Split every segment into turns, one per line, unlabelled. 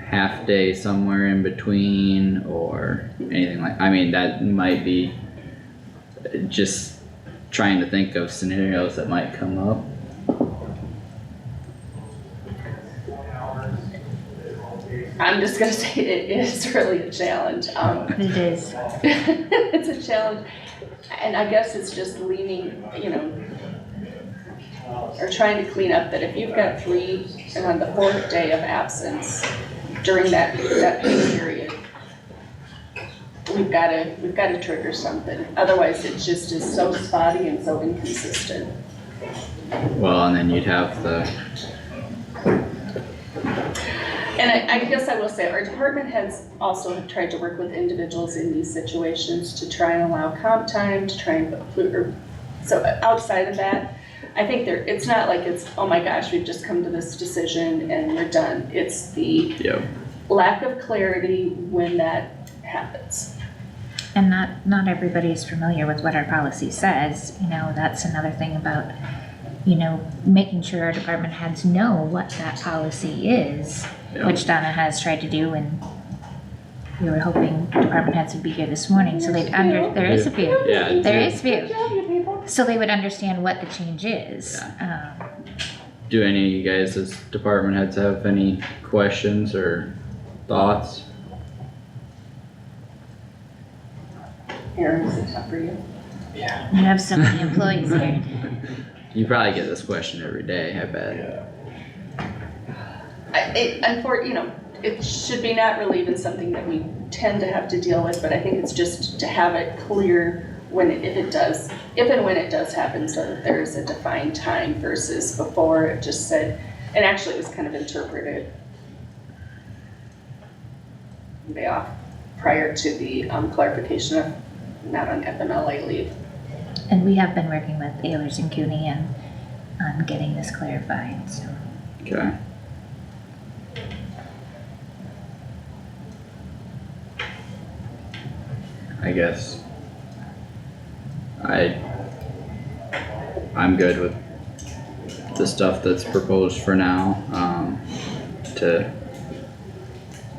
half day somewhere in between or anything like, I mean, that might be just trying to think of scenarios that might come up.
I'm just gonna say it is really a challenge, um,
It is.
it's a challenge. And I guess it's just leaning, you know, or trying to clean up that if you've got three, and on the fourth day of absence during that, that pay period, we've gotta, we've gotta trigger something, otherwise it just is so spotty and so inconsistent.
Well, and then you'd have the,
And I, I guess I will say, our department has also tried to work with individuals in these situations to try and allow comp time, to try and, put flu- or, so outside of that, I think there, it's not like it's, oh my gosh, we've just come to this decision and we're done. It's the
you know,
lack of clarity when that happens.
And not, not everybody is familiar with what our policy says, you know, that's another thing about, you know, making sure our department heads know what that policy is,
Yeah.
which Donna has tried to do and we were hoping department heads would be here this morning, so they'd under, there is a few,
yeah,
there is a
Good
few.
job, you people.
So they would understand what the change is, um,
do any of you guys as department heads have any questions or thoughts?
Aaron, is it tough for you?
we have so many employees here.
You probably get this question every day, I bet.
I, it, unfor, you know, it should be not really even something that we tend to have to deal with, but I think it's just to have it clear when, it- if it does, if and when it does happen, so that there's a defined time versus before it just said, and actually it was kind of interpreted way off prior to the um, clarification of not on FMLA leave.
And we have been working with Ayers and Cooney and, on getting this clarified, so.
Okay. I guess. I. I'm good with the stuff that's proposed for now, um, to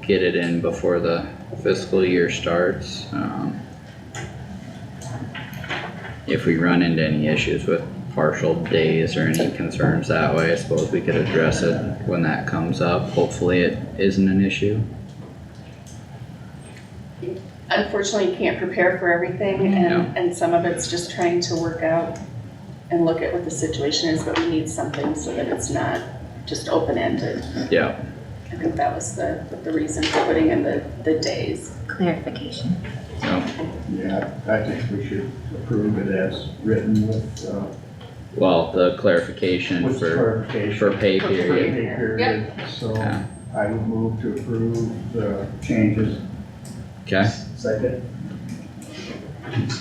get it in before the fiscal year starts, um. If we run into any issues with partial days or any concerns that way, I suppose we could address it when that comes up. Hopefully it isn't an issue.
Unfortunately, you can't prepare for everything and, and some of it's just trying to work out and look at what the situation is, but we need something so that it's not just open-ended.
Yeah,
I think that was the, the reason for putting in the, the days.
clarification.
so,
Yeah, I think we should approve it as written with, uh,
well, the clarification
with
for,
clarification.
for pay
For
period.
Pay period, so
Yeah.
I would move to approve the changes.
Okay,
Second.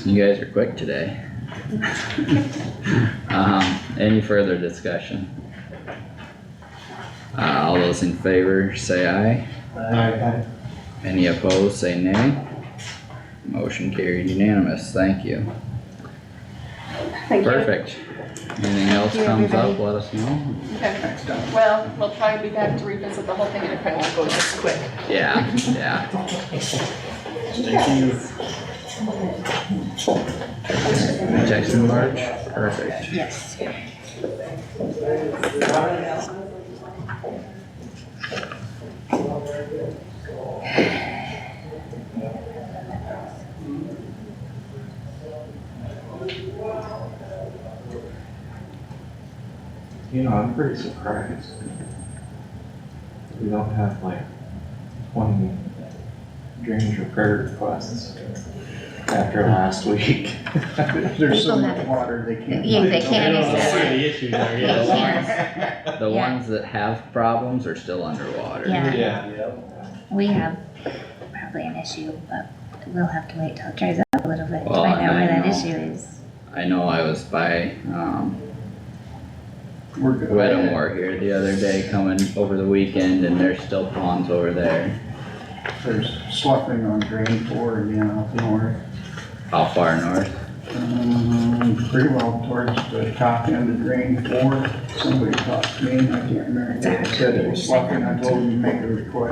you guys are quick today. Um, any further discussion? Uh, all those in favor, say aye.
Aye.
Any opposed, say nay. Motion carried unanimous, thank you.
Thank you.
Perfect. Anything else
you,
comes up,
everybody.
let us know.
Okay. Well, we'll probably be back to revisit the whole thing and it probably won't go this quick.
Yeah, yeah.
Yes.
Text in March, perfect.
Yes.
You know, I'm pretty surprised. We don't have like twenty drainage repair requests after last week.
There's
People
so much
have it.
water they can't.
Yeah, they
find.
can't
I don't
accept
see the issue there,
Yeah.
yeah.
The
Yeah.
ones that have problems are still underwater.
Yeah.
Yeah.
We have probably an issue, but we'll have to wait till it dries up a little bit to
Well,
find out
I
where that
know.
issue is.
I know I was by, um,
We're good.
Wedmore here the other day coming over the weekend and there's still ponds over there.
There's sloughing on drain four again out north.
How far north?
Um, pretty well towards the top end of drain four. Somebody talked to me, and I can't remember, they said it was sloughing. I told them to make a request.